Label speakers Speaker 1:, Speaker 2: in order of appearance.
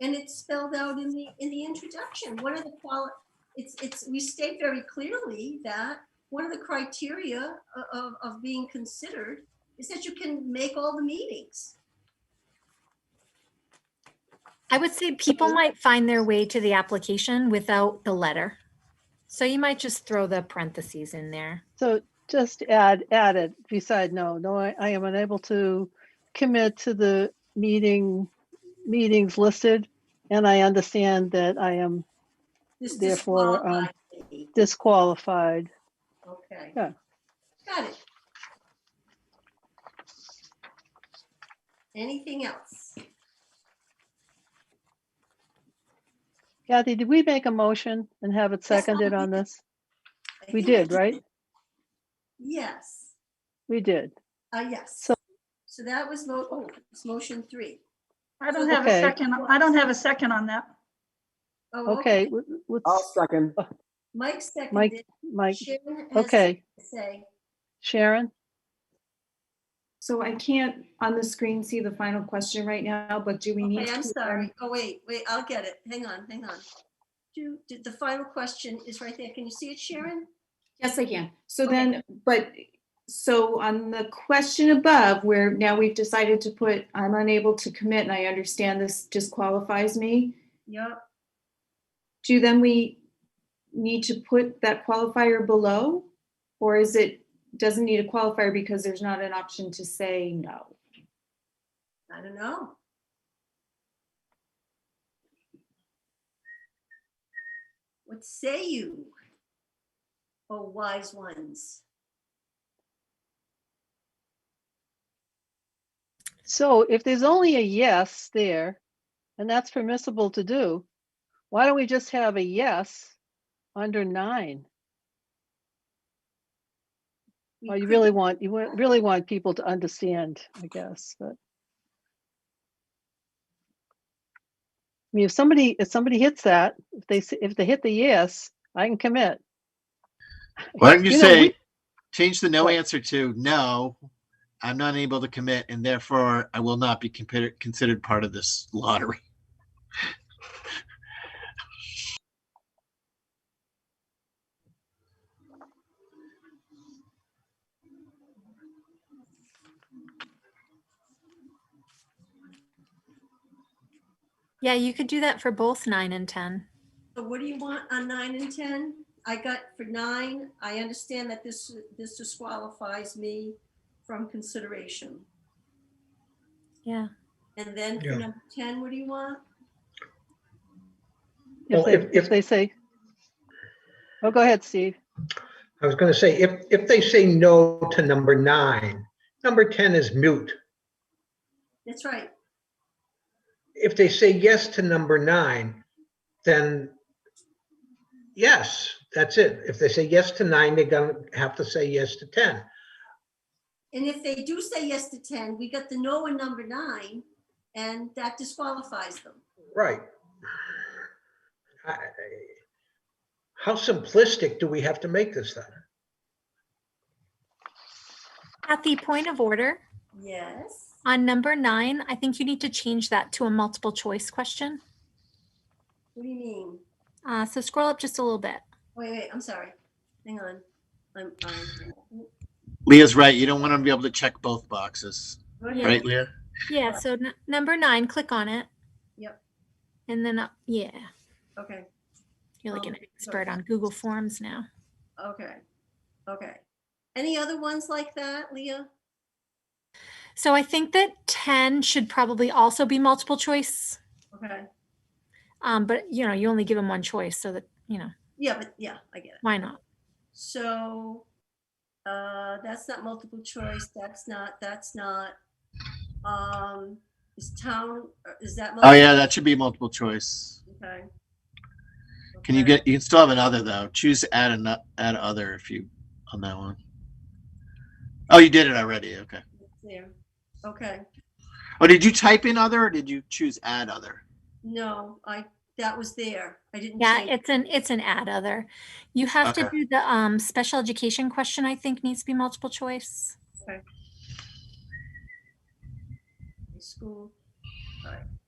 Speaker 1: and it's spelled out in the, in the introduction. What are the quali, it's, it's, we state very clearly that one of the criteria o- of, of being considered is that you can make all the meetings.
Speaker 2: I would say people might find their way to the application without the letter. So you might just throw the parentheses in there.
Speaker 3: So just add, add it beside no, no, I, I am unable to commit to the meeting, meetings listed. And I understand that I am
Speaker 1: This
Speaker 3: Therefore, um,
Speaker 1: disqualifies me.
Speaker 3: disqualified.
Speaker 1: Okay.
Speaker 3: yeah.
Speaker 1: Got it. Anything else?
Speaker 3: Kathy, did we make a motion and have it
Speaker 1: I
Speaker 3: seconded on
Speaker 1: did.
Speaker 3: this?
Speaker 1: I
Speaker 3: We
Speaker 1: think-
Speaker 3: did, right?
Speaker 1: Yes,
Speaker 3: We did.
Speaker 1: uh, yes.
Speaker 3: So-
Speaker 1: So that was, mo- oh, it's motion three.
Speaker 4: I don't have
Speaker 3: Okay.
Speaker 4: a second, I don't have a second on that.
Speaker 1: Oh,
Speaker 3: Okay, w-
Speaker 5: I'll
Speaker 3: what's
Speaker 5: second.
Speaker 1: Mike seconded.
Speaker 3: Mike?
Speaker 1: Sharon has
Speaker 3: Okay,
Speaker 1: to Say,
Speaker 3: Sharon?
Speaker 6: So I can't on the screen see the final question right now, but do we need?
Speaker 1: okay, I'm
Speaker 6: to, um,
Speaker 1: sorry. Oh, wait, wait, I'll get it. Hang on, hang on. Do, did the final question is right there. Can you see it, Sharon?
Speaker 6: Yes, I can. So
Speaker 1: Okay.
Speaker 6: then, but, so on the question above, where now we've decided to put, I'm unable to commit, and I understand this disqualifies me,
Speaker 1: Yep.
Speaker 6: do then we need to put that qualifier below? Or is it, doesn't need a qualifier because there's not an option to say no?
Speaker 1: I don't know. What say you, O wise ones?
Speaker 3: So if there's only a yes there, and that's permissible to do, why don't we just have a yes under nine?
Speaker 1: We
Speaker 3: Well, you
Speaker 1: could-
Speaker 3: really want, you wa- really want people to understand, I guess, but. I mean, if somebody, if somebody hits that, if they, s- if they hit the yes, I can commit.
Speaker 7: Why don't you,
Speaker 3: You know,
Speaker 7: say,
Speaker 3: we-
Speaker 7: change the no
Speaker 3: What?
Speaker 7: answer to no, I'm not able to commit, and therefore I will not be considered considered part of this lottery.
Speaker 2: Yeah, you could do that for both nine and 10.
Speaker 1: So What do you want on nine and 10? I got for nine, I understand that this, this disqualifies me from consideration.
Speaker 2: Yeah.
Speaker 1: And then for
Speaker 8: Yeah.
Speaker 1: number 10, what do you want?
Speaker 3: If
Speaker 8: Well,
Speaker 3: they,
Speaker 8: if-
Speaker 3: if
Speaker 8: if-
Speaker 3: they say. Oh, go ahead, Steve.
Speaker 8: I was gonna say, if, if they say no to number nine, number 10 is mute.
Speaker 1: That's right.
Speaker 8: If they say yes to number nine, then yes, that's it. If they say yes to nine, they're gonna have to say yes to 10.
Speaker 1: And if they do say yes to 10, we got the no in number nine, and that disqualifies them.
Speaker 8: Right. I- I- How simplistic do we have to make this then?
Speaker 2: At the point of order,
Speaker 1: Yes.
Speaker 2: on number nine, I think you need to change that to a multiple choice question.
Speaker 1: What do you mean?
Speaker 2: Uh, so scroll up just a little bit.
Speaker 1: Wait, wait, I'm sorry. Hang on. I'm, I'm.
Speaker 7: Leah's right. You don't want to be able to check both boxes,
Speaker 1: go ahead.
Speaker 7: right, Leah?
Speaker 2: Yeah, so n- number nine, click on it.
Speaker 1: Yep.
Speaker 2: And then, up yeah,
Speaker 1: Okay,
Speaker 2: you're like an
Speaker 1: Um,
Speaker 2: expert on Google Forms now.
Speaker 1: okay, okay. Any other ones like that, Leah?
Speaker 2: So I think that 10 should probably also be multiple choice.
Speaker 1: Okay,
Speaker 2: Um, but you know, you only give them one choice so that, you know,
Speaker 1: yeah, but yeah, I get it.
Speaker 2: why not?
Speaker 1: So, uh, that's not multiple choice, that's not, that's not, um, is town, uh, is that?
Speaker 7: Oh
Speaker 1: multiple-
Speaker 7: yeah, that should be multiple choice.
Speaker 1: Okay.
Speaker 7: Can you
Speaker 1: Okay.
Speaker 7: get? You can still have another though. Choose add an add other if you on that one. Oh, you did it already. Okay.
Speaker 1: There, okay,
Speaker 7: Oh, did you type in other or did you choose add other?
Speaker 1: no, I, that was there, I didn't.
Speaker 2: Yeah,
Speaker 1: change-
Speaker 2: it's an it's an add other. You have to
Speaker 7: Okay.
Speaker 2: do the um special education question, I think needs to be multiple choice.
Speaker 1: School, alright,